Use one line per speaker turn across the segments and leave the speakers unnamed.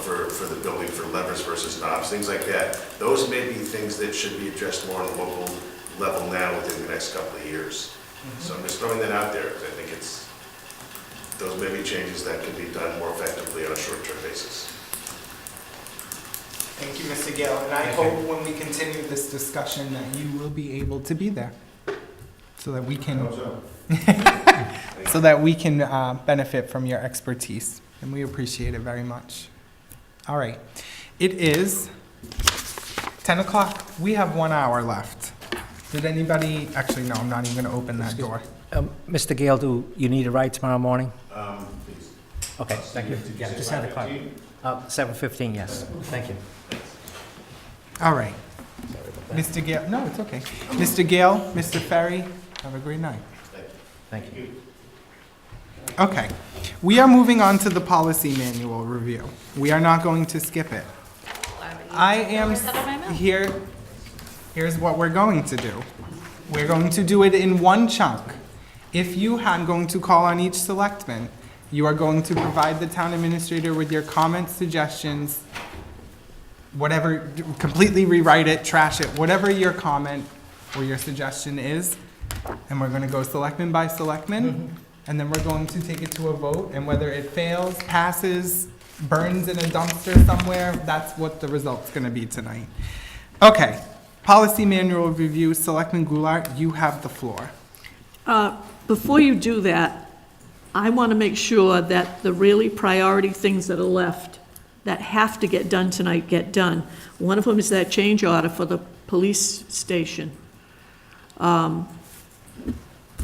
for, for the building for levers versus knobs, things like that. Those may be things that should be addressed more on the local level now within the next couple of years. So I'm just throwing that out there, because I think it's, those may be changes that can be done more effectively on a short-term basis.
Thank you, Mr. Gill, and I hope when we continue this discussion that you will be able to be there, so that we can, so that we can uh, benefit from your expertise, and we appreciate it very much. All right, it is 10 o'clock, we have one hour left. Did anybody, actually, no, I'm not even gonna open that door.
Um, Mr. Gale, do you need a ride tomorrow morning?
Um, please.
Okay, thank you. Yeah, just had a call. Uh, seven fifteen, yes, thank you.
All right. Mr. Gale, no, it's okay. Mr. Gale, Mr. Ferry, have a great night.
Thank you.
Okay, we are moving on to the policy manual review. We are not going to skip it. I am
Is that on my mouth?
here, here's what we're going to do. We're going to do it in one chunk. If you, I'm going to call on each selectman. You are going to provide the town administrator with your comments, suggestions, whatever, completely rewrite it, trash it, whatever your comment or your suggestion is. And we're gonna go selectman by selectman, and then we're going to take it to a vote, and whether it fails, passes, burns in a dumpster somewhere, that's what the result's gonna be tonight. Okay, policy manual review, Selectman Goulart, you have the floor.
Uh, Before you do that, I want to make sure that the really priority things that are left, that have to get done tonight, get done. One of them is that change order for the police station. Um,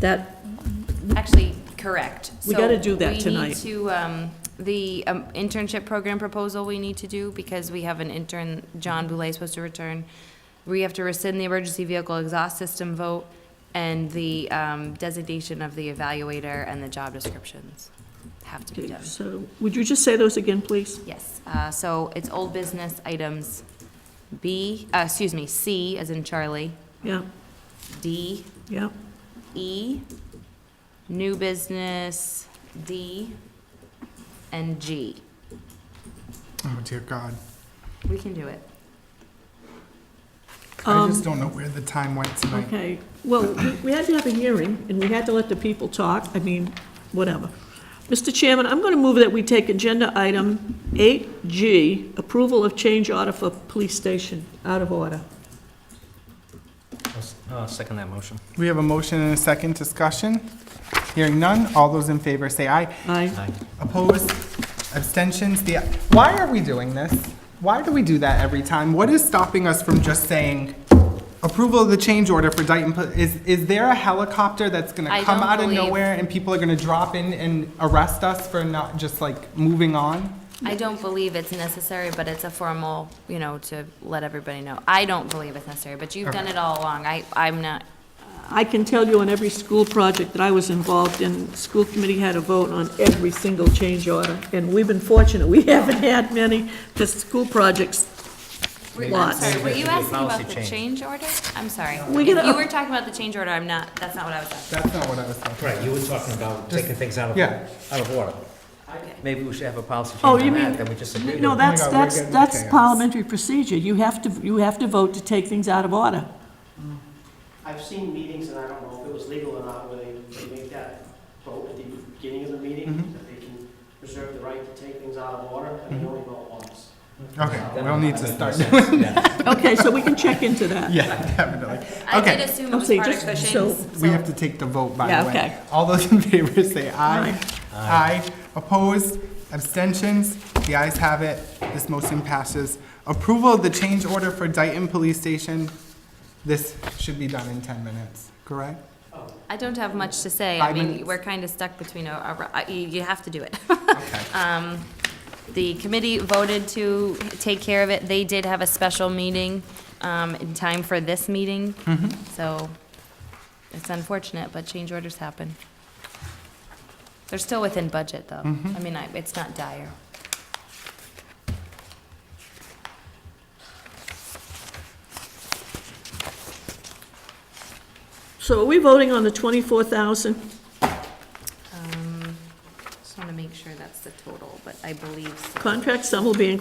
That,
Actually, correct.
We
So
gotta do that
We need
tonight.
to, um, the um, internship program proposal we need to do, because we have an intern, John Boulay is supposed to return. We have to rescind the emergency vehicle exhaust system vote and the um, designation of the evaluator and the job descriptions have to be
okay,
done.
so, would you just say those again, please?
Yes, uh, so it's old business items B, uh, excuse me, C as in Charlie,
Yeah,
D,
yeah,
E, new business D, and G.
Oh dear God,
We can do it.
I
Um,
just don't know where the time went tonight.
okay. Well, we- we had to have a hearing, and we had to let the people talk, I mean, whatever. Mr. Chairman, I'm going to move that we take agenda item 8G, approval of change order for police station, out of order.
I'll s- I'll second that motion.
We have a motion and a second discussion. Hearing none, all those in favor say aye.
Aye.
Aye.
Opposed? Abstentions? The, why are we doing this? Why do we do that every time? What is stopping us from just saying approval of the change order for Dayton? Pol- Is, is there a helicopter that's gonna
I
come
don't
out of
believe-
nowhere and people are gonna drop in and arrest us for not just like moving on?
I don't believe it's necessary, but it's a formal, you know, to let everybody know. I don't believe it's necessary, but you've done it all along. I, I'm not,
I can tell you on every school project that I was involved in, school committee had a vote on every single change order, and we've been fortunate, we haven't had many, because school projects,
I'm
Lots.
sorry, were you asking
Policy
about the
change.
change order? I'm sorry.
We
If
gotta-
you were talking about the change order, I'm not, that's not what I was asking.
That's not what I was talking
Right, you were talking about taking things out of,
Yeah.
out of order. Maybe we should have a policy
Oh,
change on
you
that,
mean-
that we just agree
no,
to.
that's,
God, we're
that's,
getting
that's
chaos.
parliamentary procedure, you have to, you have to vote to take things out of order.
I've seen meetings, and I don't know if it was legal or not, where they, they make that vote at the beginning of the meeting, that they can reserve the right to take things out of order, and they only vote once.
about. Okay, we'll need to start.
Yeah.
Okay, so we can check into that.
Yeah, definitely.
I did
Okay,
assume it
I'll
was
say
part of
just-
Cushing's.
so
we have to take the vote, by
Yeah,
the way.
okay.
All those in favor say aye.
Aye.
Aye. Opposed? Abstentions? The ayes have it. This motion passes. Approval of the change order for Dayton Police Station. This should be done in 10 minutes, correct?
I don't have much to say. I
Five
mean,
minutes.
we're kind of stuck between a- a, ro- I- you, you have to do it.
Okay.
Um, The committee voted to take care of it. They did have a special meeting um, in time for this meeting.
Mm-hmm.
So it's unfortunate, but change orders happen. They're still within budget, though.
Mm-hmm.
I mean, I- it's not dire.
So are we voting on the twenty-four thousand?
Um, Just want to make sure that's the total, but I believe so.
Contract sum will be increased